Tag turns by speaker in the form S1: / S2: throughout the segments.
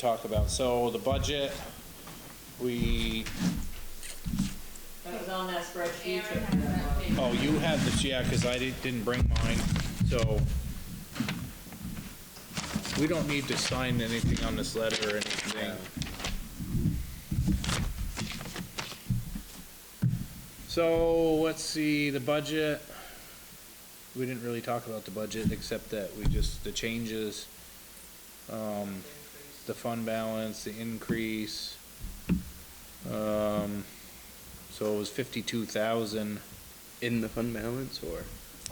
S1: talk about. So the budget, we,
S2: That was on that spreadsheet. Mm.
S3: Aaron has an update.
S1: oh, you had this, yeah, because I di- didn't bring mine, so we don't need to sign anything on this letter or anything. So, let's see, the budget, we didn't really talk about the budget, except that we just, the changes, um, the fund balance, the increase. Um, so it was fifty-two thousand.
S4: in the fund balance or?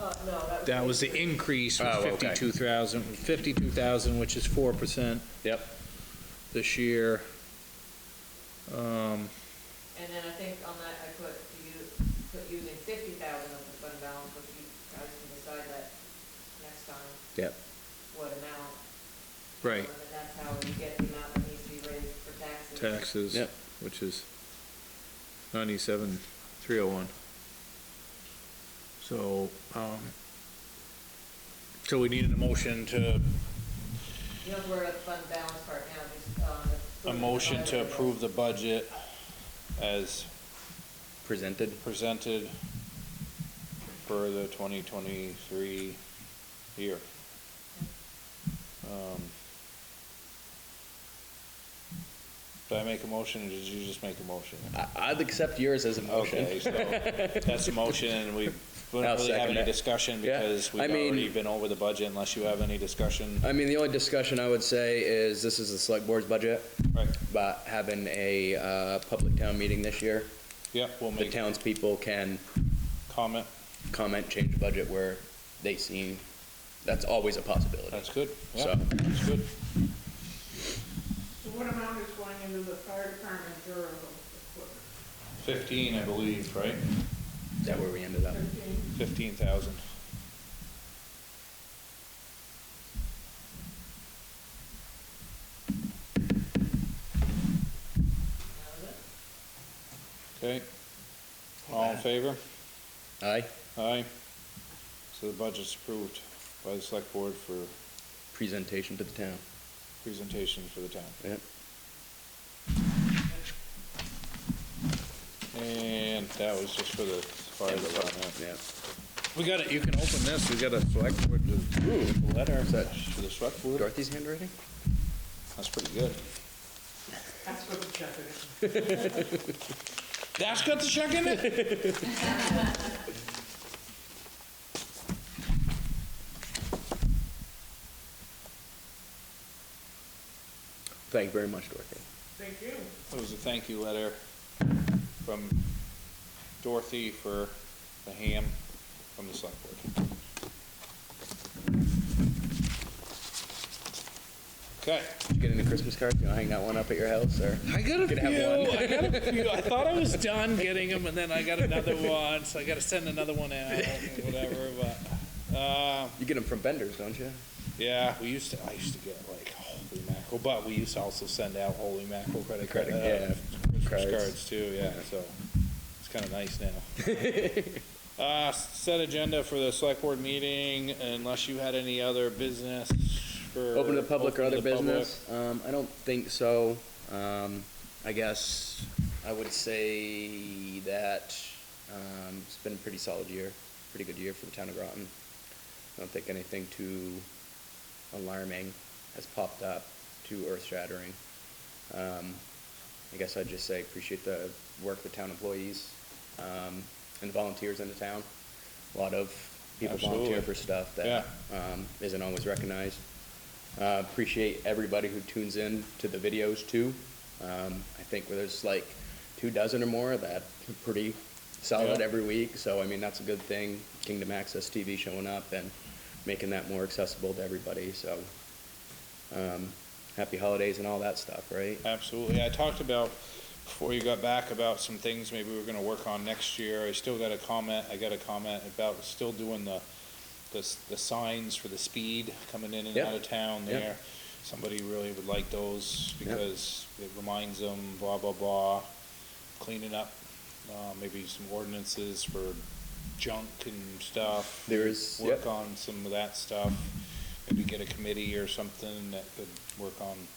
S2: Uh, no, that was.
S1: That was the increase was
S4: Oh, okay.
S1: fifty-two thousand, fifty-two thousand, which is four percent
S4: Yep.
S1: this year. Um,
S2: And then I think on that, I put you, put using fifty thousand of the fund balance, but you guys can decide that next time,
S4: Yep.
S2: what amount.
S1: right,
S2: And then that's how you get the amount that needs to be raised for taxes.
S1: taxes,
S4: Yep.
S1: which is ninety-seven, three oh one. So, um, so we needed a motion to,
S2: You don't worry about the fund balance part now, just, um. the-
S1: a motion to approve the budget as
S4: Presented.
S1: presented for the twenty twenty-three year. Um, Did I make a motion, or did you just make a motion?
S4: I, I'd accept yours as a motion.
S1: Okay, so that's a motion, and we we don't
S4: I'll
S1: really have
S4: second
S1: any
S4: it.
S1: discussion
S4: Yeah,
S1: because we've
S4: I mean-
S1: already been over the budget unless you have any discussion.
S4: I mean, the only discussion I would say is this is the select board's budget,
S1: Right,
S4: but having a, uh, public town meeting this year,
S1: yeah, we'll
S4: the
S1: make
S4: townspeople can
S1: comment.
S4: comment, change the budget where they see, that's always a possibility.
S1: That's good, yeah,
S4: So-
S1: that's good.
S3: So what amount is going into the fire department durable equipment?
S1: Fifteen, I believe, right?
S4: Is that where we ended up?
S3: Fifteen?
S1: Fifteen thousand.
S2: That was it.
S1: Okay. All in favor?
S4: Aye,
S1: Aye. So the budget's approved by the select board for
S4: presentation to the town.
S1: presentation for the town.
S4: Yep.
S1: And that was just for the fire department.
S4: Yep.
S1: We got it, you can open this, we got a select board
S4: Ooh.
S1: letter
S4: Is that
S1: for the select board.
S4: Dorothy's handwriting?
S1: That's pretty good.
S3: That's what the check is.
S1: That's got the check in it?
S4: Thank you very much, Dorothy.
S3: Thank you.
S1: It was a thank you letter from Dorothy for the ham from the select board. Okay.
S4: Did you get any Christmas cards? You wanna hang that one up at your house or?
S1: I got a
S4: Could
S1: few.
S4: have one.
S1: I got a few. I thought I was done getting them, and then I got another one, so I got to send another one out, and whatever. But uh,
S4: You get them from vendors, don't you?
S1: yeah, we used to. I used to get like holy mackerel, but we used to also send out holy mackerel credit card,
S4: Credit,
S1: uh,
S4: yeah,
S1: Christmas
S4: cards.
S1: cards too. Yeah, so it's kind of nice now. uh, set agenda for the select board meeting, unless you had any other business. For
S4: Open to the public or
S1: open
S4: other
S1: to the public.
S4: business? Um, I don't think so. Um, I guess I would say that, um, it's been a pretty solid year, pretty good year for the town of Groton. I don't think anything too alarming has popped up, too earth shattering. Um, I guess I'd just say appreciate the work the town employees, um, and the volunteers in the town. A lot of people volunteer
S1: Absolutely.
S4: for stuff that, um, isn't always recognized. Uh, appreciate everybody who tunes in to the videos too. Um, I think where there's like two dozen or more that are pretty solid
S1: Yeah.
S4: every week. So I mean that's a good thing. Kingdom Access TV showing up and making that more accessible to everybody. So um, happy holidays and all that stuff, right?
S1: Absolutely. I talked about, before you got back, about some things maybe we're gonna work on next year. I still got a comment, I got a comment about still doing the, the, s- the signs for the speed coming in and
S4: Yep.
S1: out of town
S4: Yep.
S1: there. Somebody really would like those
S4: Yep.
S1: because it reminds them, blah, blah, blah. Cleaning up, uh, maybe some ordinances for junk and stuff.
S4: There is-
S1: Work
S4: yep.
S1: on some of that stuff. Maybe get a committee or something that could work on